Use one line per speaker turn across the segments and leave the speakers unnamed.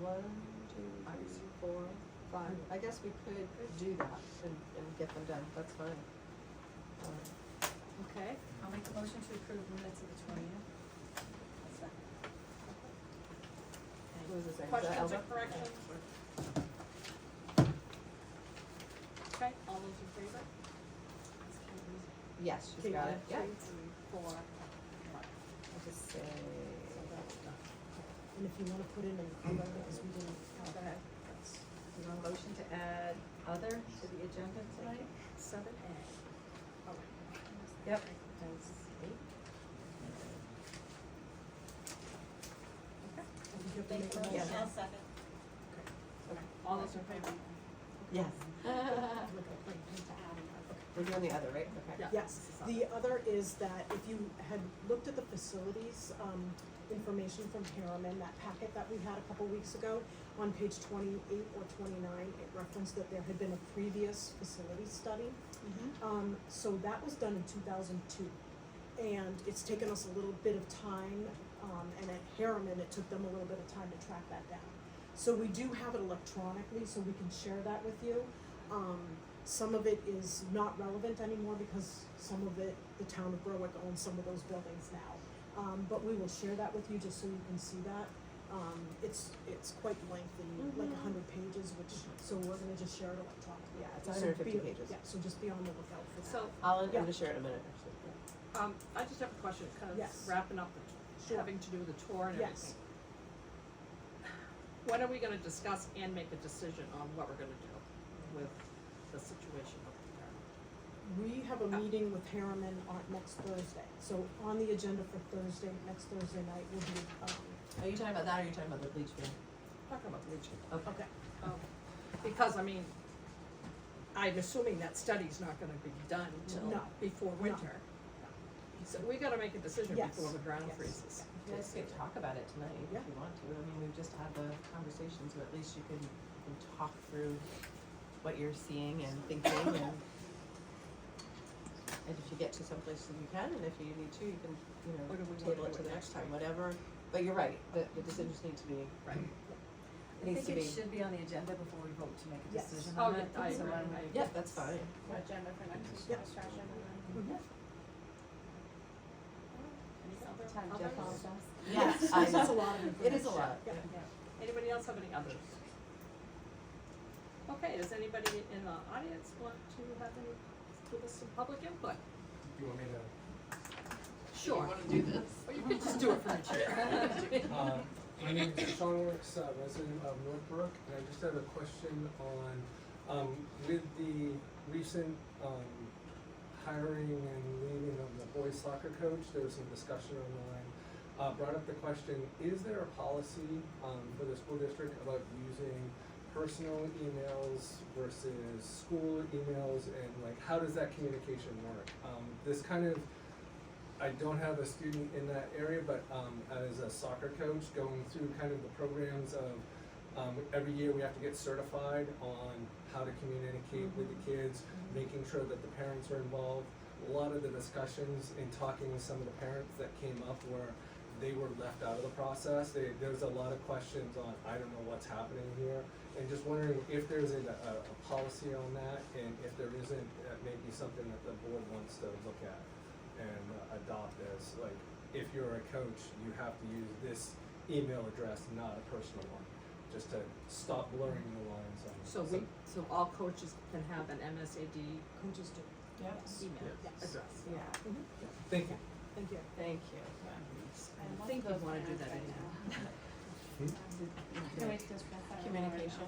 one, two, three, four, five. I guess we could do that and, and get them done, that's fine. Um,
Okay, I'll make a motion to approve the minutes of the twentieth.
Who was the second? Was that
Questions or
Elba?
corrections?
Okay, all those in favor? That's Katie's.
Yes, she's got it, yeah.
Three, three, four, one.
I'll just say.
So that's done.
And if you wanna put in an other, because we didn't have
Go ahead.
You want a motion to add other to the agenda tonight?
Seven A. Oh, All right.
Yep. That's eight.
that, we have to make a
Yeah.
motion.
I'll
second.
All those in favor?
Yes,
Look at like, just adding up.
we're doing the other, right? Okay.
Yeah.
Yes, the other is that if you had looked at the facilities, um, information from Harriman, that packet that we had a couple weeks ago, on page twenty-eight or twenty-nine, it referenced that there had been a previous facility study.
Mm-hmm.
Um, so that was done in two thousand two. And it's taken us a little bit of time, um, and at Harriman, it took them a little bit of time to track that down. So we do have it electronically, so we can share that with you. Um, some of it is not relevant anymore because some of it, the town of Berwick owns some of those buildings now. Um, but we will share that with you just so you can see that. Um, it's, it's quite lengthy,
Mm-hmm.
like a hundred pages, which, so we're gonna just share it electronically. Yeah,
It's 150
be-
pages.
Yeah, so just be on the lookout for that.
So,
I'll, I'm
Yeah.
gonna share in a minute, actually.
um, I just have a question, kind of
Yes.
wrapping up the,
Sure.
having to do with the tour and everything.
Yes.
When are we gonna discuss and make a decision on what we're gonna do with the situation up there?
We have
uh,
a meeting with Harriman on next Thursday, so on the agenda for Thursday, next Thursday night will be, um,
Are you talking about that or are you talking about the bleach bin?
Talking about leaching.
Okay.
okay,
Because, I mean, I'm assuming that study's not gonna be done till
No.
before winter. So we gotta make a decision
Yes.
before the ground
Yes.
freezes.
You guys could talk about it tonight if
Yeah.
you want to. I mean, we've just had the conversation, so at least you can, you can talk through what you're seeing and thinking and and if you get to someplace that you can, and if you need to, you can, you know,
Or do we wanna
table it
do
to
it
the next
next
time,
week?
whatever. But you're right, the, the decisions need to be,
Right.
needs to be.
I think it should be on the agenda before we vote to make a
Yes.
decision
Oh,
on
yeah,
it.
I
so
agree,
I'm-
I agree.
Yeah, that's fine.
Agenda for next week's
Yep.
discussion and
Mm-hmm.
It's all the
Other-
time Jeff
others?
calls us.
Yes, I
It's a
know.
lot of
It is
information.
a lot, yeah.
Yeah.
Anybody else have any others? Okay, does anybody in the audience want to have any, give us some public input?
You want me to,
Sure. You wanna do this? Or you could just do it from the chair.
uh, my name is Sean Works, uh, resident of Northbrook, and I just have a question on, um, with the recent, um, hiring and leaving of the boys soccer coach, there was some discussion online, uh, brought up the question, is there a policy, um, for the school district about using personal emails versus school emails, and like, how does that communication work? Um, this kind of I don't have a student in that area, but um, as a soccer coach, going through kind of the programs of um, every year we have to get certified on how to communicate with the kids, making sure that the parents are involved. A lot of the discussions in talking with some of the parents that came up were they were left out of the process. They, there was a lot of questions on I don't know what's happening here, and just wondering if there's a, a, a policy on that, and if there isn't, that may be something that the board wants to look at and uh, adopt as like if you're a coach you have to use this email address not a personal one just to stop blurring the lines on
So we, so all coaches can have an MSAD
Coaches do, yes,
email
Yes. Mm-hmm.
address.
Yeah,
thank you
thank you.
thank you.
I think we wanna do that anyhow.
Can we discuss that?
uh,
Communication.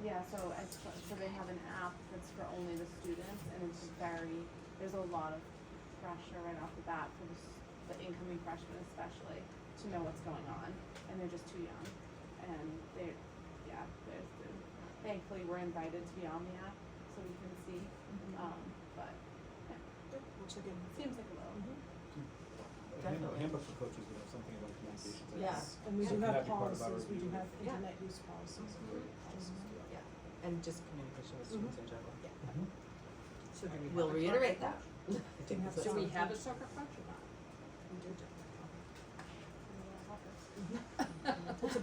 Yeah, so I, so they have an app that's for only the students and it's very, there's a lot of pressure right off the bat for the, s- the incoming freshmen especially to know what's going on and they're just too young. And they're, yeah, there's, there's- thankfully we're invited to be on the app so we can see, um, but
We'll check in.
it seems like a little.
A handbook- handbook for coaches would have something about communications. I
Yeah.
guess.
And we
So
do
that'd
have
be part of our
policies, we do
review.
have
Yeah.
internet use policies.
Policies, yeah.
And just communication
Mm-hmm.
with students in general.
Mm-hmm.
So do we have
We'll
a-
reiterate that. I think
have
that's
Do
what-
we have a soccer coach or not?
We do do.
It's a little tougher.